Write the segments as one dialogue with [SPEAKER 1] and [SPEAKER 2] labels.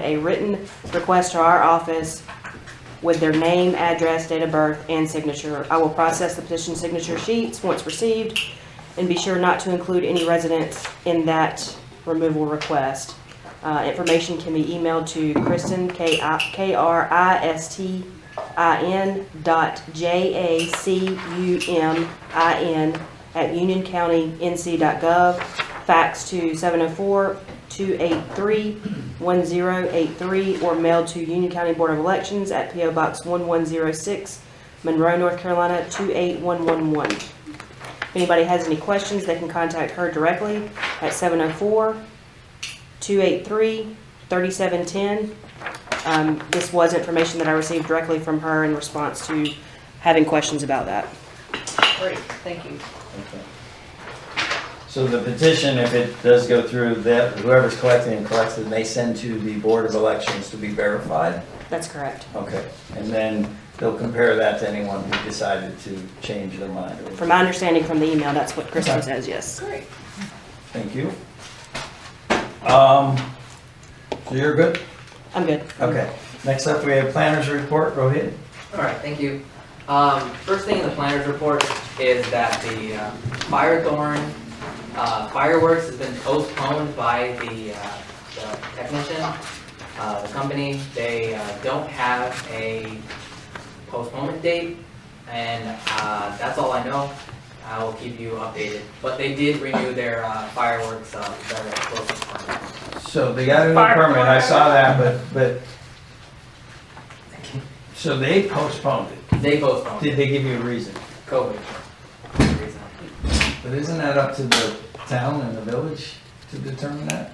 [SPEAKER 1] a written request to our office with their name, address, date of birth, and signature. I will process the petition signature sheets once received and be sure not to include any residents in that removal request. Uh, Information can be emailed to Kristen, K I- K R I S T I N dot J A C U M I N at unioncountync.gov. Fax to 704-283-1083 or mail to Union County Board of Elections at P.O. Box 1106, Monroe, North Carolina 28111. If anybody has any questions, they can contact her directly at 704-283-3710. Um, This was information that I received directly from her in response to having questions about that.
[SPEAKER 2] Great, thank you.
[SPEAKER 3] Okay. So the petition, if it does go through, that whoever's collecting and collects it, they send to the Board of Elections to be verified?
[SPEAKER 1] That's correct.
[SPEAKER 3] Okay, and then they'll compare that to anyone who decided to change their mind. or-
[SPEAKER 1] From my understanding from the email, that's what Kristen says, yes.
[SPEAKER 2] Great.
[SPEAKER 3] Thank you. Um, so you're good?
[SPEAKER 1] I'm good.
[SPEAKER 3] Okay. Next up, we have planners report, Rohit.
[SPEAKER 4] All right, thank you. Um, First thing in the planner's report is that the uh, Firethorn uh, fireworks has been postponed by the uh, the technician, uh, the company. They uh, don't have a postponement date, and uh, that's all I know. I will keep you updated. But they did renew their uh, fireworks, uh, their closing permit.
[SPEAKER 3] So they got a new permit, I saw that, but, but. So they postponed it.
[SPEAKER 4] They postponed
[SPEAKER 3] Did
[SPEAKER 4] it,
[SPEAKER 3] they give you a reason?
[SPEAKER 4] COVID. reason.
[SPEAKER 3] But isn't that up to the town and the village to determine that?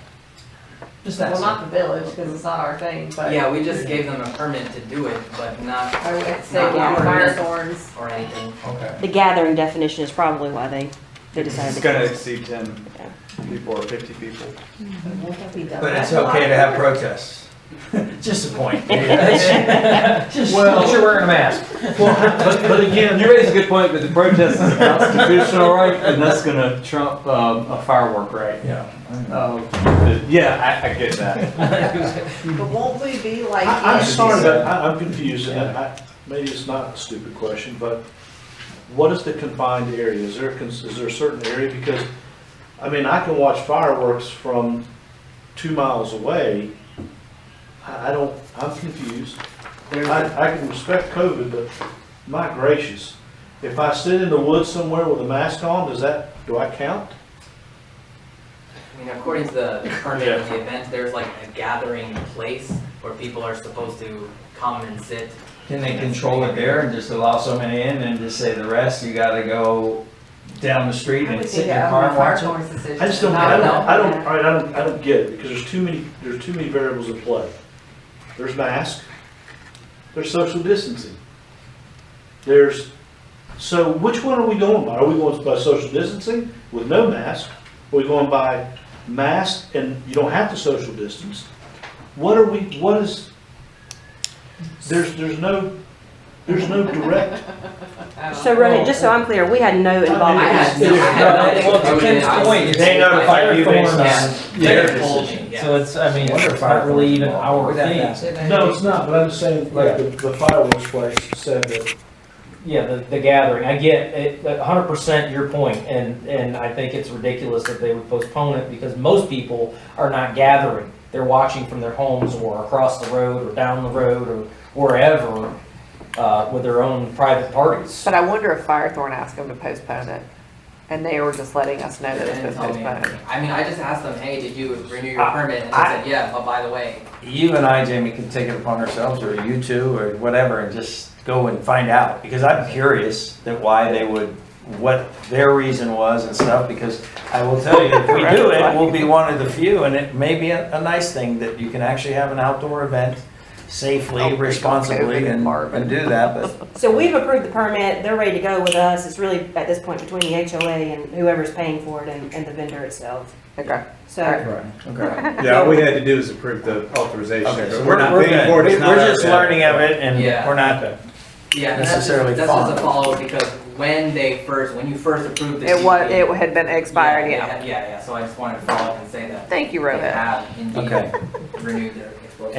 [SPEAKER 3] Just
[SPEAKER 2] Well,
[SPEAKER 3] that,
[SPEAKER 2] not the village, because it's not our thing, but
[SPEAKER 4] Yeah, we just gave them a permit to do it, but not
[SPEAKER 2] I would say
[SPEAKER 4] Not
[SPEAKER 2] yeah,
[SPEAKER 4] our
[SPEAKER 2] Firethorns.
[SPEAKER 4] or anything.
[SPEAKER 3] okay.
[SPEAKER 1] The gathering definition is probably why they, they decided
[SPEAKER 5] It's
[SPEAKER 1] to.
[SPEAKER 5] gonna
[SPEAKER 1] cancel.
[SPEAKER 5] exceed ten people or fifty people.
[SPEAKER 3] But
[SPEAKER 2] But
[SPEAKER 3] it's okay to have protests. Just a point. Just,
[SPEAKER 6] Well-
[SPEAKER 3] you're wearing a mask.
[SPEAKER 6] Well, but, but again, you raise a good point, but the protest is a constitutional right, and that's gonna trump, um, a firework right.
[SPEAKER 3] Yeah. I know.
[SPEAKER 6] Um, yeah, I, I get that.
[SPEAKER 2] But won't we be like?
[SPEAKER 7] I- I'm
[SPEAKER 2] in-
[SPEAKER 7] sorry, but I- I'm confused, and I- I- maybe it's not a stupid question, but what is the confined area? Is there, a cons- is there a certain area? Because, I mean, I can watch fireworks from two miles away. I I don't, I'm confused.
[SPEAKER 4] There's
[SPEAKER 7] I I can respect COVID, but my gracious, if I sit in the woods somewhere with a mask on, does that, do I count?
[SPEAKER 4] I mean, according to the permit of
[SPEAKER 7] Yeah.
[SPEAKER 4] the event, there's like a gathering place where people are supposed to come and sit.
[SPEAKER 3] Can they control it there and just allow so many in and just say the rest, you gotta go down the street
[SPEAKER 2] I would
[SPEAKER 3] and
[SPEAKER 2] think
[SPEAKER 3] sit in your
[SPEAKER 2] that
[SPEAKER 3] car
[SPEAKER 2] would
[SPEAKER 3] and
[SPEAKER 2] be
[SPEAKER 3] watch it?
[SPEAKER 2] Firethorn's decision.
[SPEAKER 7] I just don't,
[SPEAKER 4] I
[SPEAKER 7] I
[SPEAKER 4] don't
[SPEAKER 7] don't,
[SPEAKER 4] know.
[SPEAKER 7] I don't, all right, I don't, I don't get it, because there's too many, there's too many variables at play. There's mask, there's social distancing. There's, so which one are we going by? Are we going by social distancing with no mask? Are we going by mask and you don't have to social distance? What are we, what is, there's, there's no, there's no direct,
[SPEAKER 2] I don't
[SPEAKER 1] So
[SPEAKER 2] know.
[SPEAKER 1] Rohit, just so I'm clear, we had no
[SPEAKER 4] I
[SPEAKER 1] involvement.
[SPEAKER 4] had, I had
[SPEAKER 6] Well, to
[SPEAKER 4] nothing to do with it.
[SPEAKER 6] Ken's
[SPEAKER 4] I was-
[SPEAKER 6] point,
[SPEAKER 3] They notified you based on
[SPEAKER 4] Yeah.
[SPEAKER 3] their
[SPEAKER 4] They told me,
[SPEAKER 3] decision.
[SPEAKER 4] yeah.
[SPEAKER 6] So it's, I mean, it's not really even our thing.
[SPEAKER 7] no, it's not, but I'm just saying, like, the the fireworks place said that
[SPEAKER 8] Yeah, the, the gathering, I get it, a hundred percent your point, and, and I think it's ridiculous that they would postpone it, because most people are not gathering. They're watching from their homes, or across the road, or down the road, or wherever, uh, with their own private parties.
[SPEAKER 9] But I wonder if Firethorn asked them to postpone it, and they were just letting us know
[SPEAKER 4] They
[SPEAKER 9] that it's been
[SPEAKER 4] didn't tell me
[SPEAKER 9] postponed.
[SPEAKER 4] anything. I mean, I just asked them, hey, did you renew your
[SPEAKER 3] I-
[SPEAKER 4] permit? And they
[SPEAKER 3] Uh, I-
[SPEAKER 4] said, yeah, but by the way,
[SPEAKER 3] You and I, Jamie, can take it upon ourselves, or you two, or whatever, and just go and find out, because I'm curious that why they would, what their reason was and stuff, because I will tell you, if we do it, we'll be one of the few, and it may be a, a nice thing that you can actually have an outdoor event
[SPEAKER 9] Outbreak
[SPEAKER 3] safely,
[SPEAKER 9] of COVID
[SPEAKER 3] responsibly,
[SPEAKER 9] in
[SPEAKER 3] and,
[SPEAKER 9] Marvin.
[SPEAKER 3] and do that, but
[SPEAKER 1] So we've approved the permit, they're ready to go with us. It's really at this point between the HOA and whoever's paying for it and, and the vendor itself.
[SPEAKER 9] Okay.
[SPEAKER 1] So,
[SPEAKER 3] okay.
[SPEAKER 5] Yeah, all we had to do is approve the authorization,
[SPEAKER 3] Okay, so
[SPEAKER 5] but we're not paying
[SPEAKER 3] good.
[SPEAKER 5] for it.
[SPEAKER 3] We-
[SPEAKER 5] It's not
[SPEAKER 3] We're
[SPEAKER 5] our
[SPEAKER 3] just
[SPEAKER 5] bad.
[SPEAKER 3] learning of it, and
[SPEAKER 4] Yeah.
[SPEAKER 3] we're not,
[SPEAKER 4] yeah, and that's just,
[SPEAKER 3] Necessarily
[SPEAKER 4] that's just
[SPEAKER 3] fine.
[SPEAKER 4] a follow, because when they first, when you first approved the.
[SPEAKER 9] It was,
[SPEAKER 4] CUP,
[SPEAKER 9] it had been expired, yeah.
[SPEAKER 4] Yeah, yeah, yeah, so I just wanted to follow up and say that.
[SPEAKER 9] Thank you,
[SPEAKER 4] They
[SPEAKER 9] Rohit.
[SPEAKER 4] have indeed
[SPEAKER 3] Okay.
[SPEAKER 4] renewed their